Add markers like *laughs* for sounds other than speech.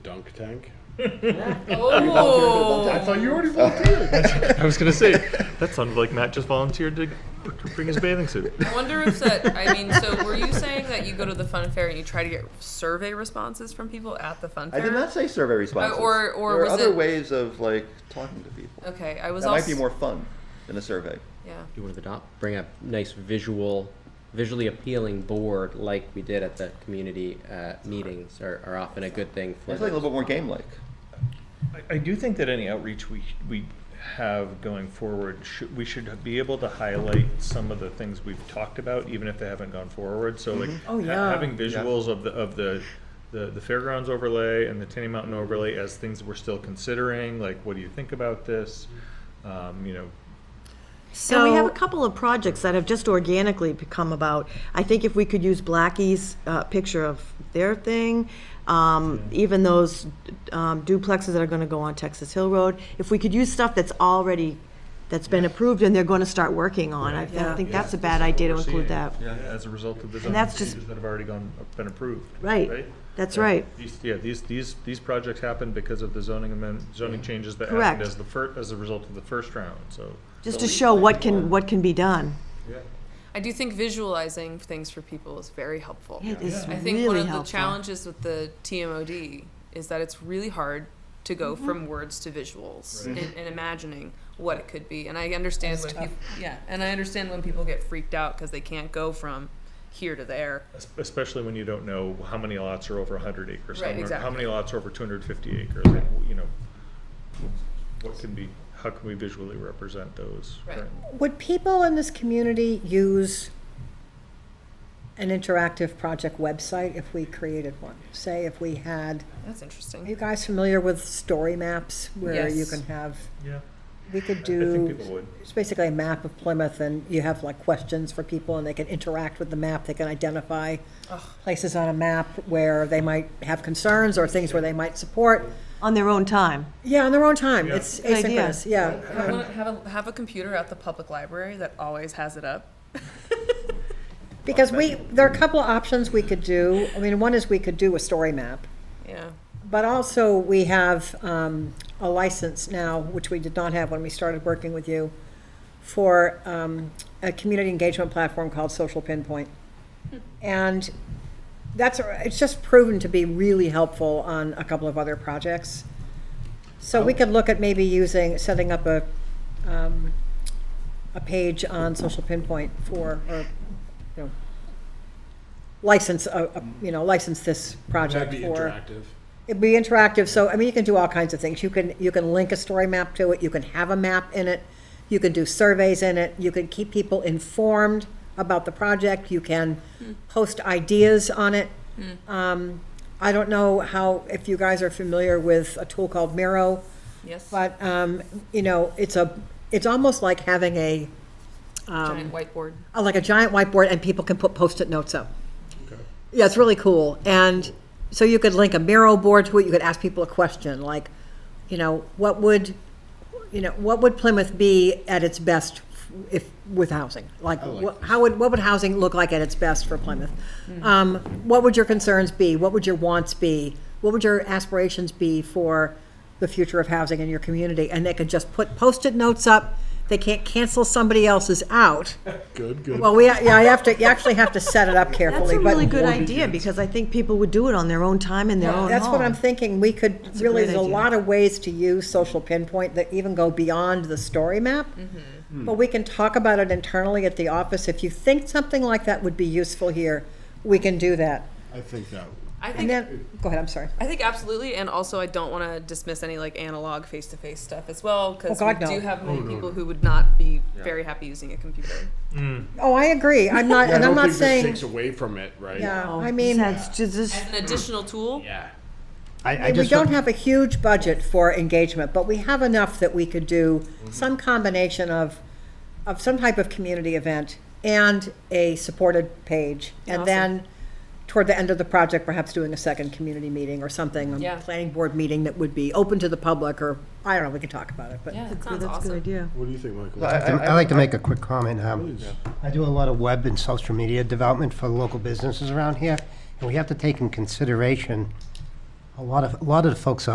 Dunk tank. Oh. I thought you already volunteered. I was gonna say that sounded like Matt just volunteered to bring his bathing suit. I wonder if that. I mean, so were you saying that you go to the fun fair and you try to get survey responses from people at the fun I fair? did not say survey responses. or- or there was are other it- ways of like talking to people. Okay, I was. That also, might be more fun than a survey. Yeah. you want to adopt, bring a nice visual, visually appealing board like we did at the community uh, meetings are, are often a good thing for. It's like a little bit more game-like. I, I do think that any outreach we we have going forward, should, we should be able to highlight some of the things we've talked about, even if they haven't gone forward. So like Oh, ha- yeah. having visuals of the of the. The, the fairgrounds overlay and the Tenny Mountain overlay as things we're still considering, like what do you think about this? Um, you know, And we have a So, couple of projects that have just organically become about. I think if we could use Blackie's uh, picture of their thing, um, even those um, duplexes that are going to go on Texas Hill Road, if we could use stuff that's already, that's been approved and they're going to start working on, I I Yeah. don't think that's a bad idea to we're include seeing, that. Yeah, as a result of the And zoning that's just- changes that have already gone, been approved. Right. That's right. These, yeah, these, these, these projects happened because of the zoning amend, zoning changes that Correct. happened as the fir, as a result of the first round, so. Just to show what can, what can be done. I do think visualizing things for people is very helpful. It is I think one really of the helpful. challenges with the TMOD is that it's really hard to go from words to visuals and, and imagining what it could be. And I understand when people, yeah, and I understand when people get freaked out because they can't go from here to there. es- Especially when you don't know how many lots are over hundred acres. how Right, many- How exactly. many lots are over two hundred fifty acres, like, you know, what can be, how can we visually represent those? Right. would people in this community use an interactive project website if we created one? Say if we had, That's are you interesting. guys familiar with story maps where you Yes. can have, Yeah, we could I think do, people would. it's basically a map of Plymouth and you have like questions for people and they can interact with the map, they can identify places on a map where they might have concerns or things where they might support. On their own time. Yeah, on their own time. Yeah. It's Good idea. asynchronous. Yeah. Have, one, have, a, have a computer at the public library that always has it up. *laughs* Because we, there are a couple of options we could do. I mean, one is we could do a story map. Yeah. But also, we have um, a license now, which we did not have when we started working with you, for um, a community engagement platform called Social Pinpoint. And that's, it's just proven to be really helpful on a couple of other projects. So Oh. we could look at maybe using, setting up a, um, a page on Social Pinpoint for, or, you know, license, a- a- you know, license this That'd project be for. interactive. It'd be interactive, so, I mean, you can do all kinds of things. You can, you can link a story map to it, you can have a map in it, you can do surveys in it, you can keep people informed about the project, you can post ideas on it. Um, I don't know how, if you guys are familiar with a tool called Miro, Yes. but, um, you know, it's a, it's almost like having a, Giant whiteboard. uh, like a giant whiteboard and people can put post-it notes up. Yeah, it's really cool. And so you could link a Miro board to it. You could ask people a question like, you know, what would, you know, what would Plymouth be at its best if with housing? Like, what, how would what would housing look like at its best for Plymouth? Um, what would your concerns be? What would your wants be? What would your aspirations be for the future of housing in your community? And they could just put post-it notes up. They can't cancel somebody else's out. Good, good. Well, we, yeah, I have to, you actually have to set it up That's carefully, a really but good idea because I think people would do it on their own time in their own home. that's what I'm thinking, we could, a really, great there's a idea. lot of ways to use social pinpoint that even go beyond the story map. Mm-hmm. But we can talk about it internally at the office, if you think something like that would be useful here, we can do that. I think that. I think And then, go ahead, I'm sorry. I think absolutely, and also I don't want to dismiss any like analog face-to-face stuff as well because Oh, God, we do no. have many people who would not be very happy using a computer. Oh, I agree, I'm not, Yeah, I and I'm don't not think this saying, takes away from it, right? yeah, Oh, I mean, that's just- just- An additional tool. Yeah. I, I we just, don't have a huge budget for engagement, but we have enough that we could do some combination of, of some type of community event and a supported page. And Awesome. then toward the end of the project, perhaps doing a second community meeting or something. Yeah. A planning board meeting that would be open to the public or, I don't know, we can talk about it, but. Yeah, that Yeah, sounds That's a awesome. good idea. What do you think, Michael? I, I like to make a quick comment. Um, I do a lot of web and social media development for local businesses around here, and we have to take in consideration A lot of, a lot of the folks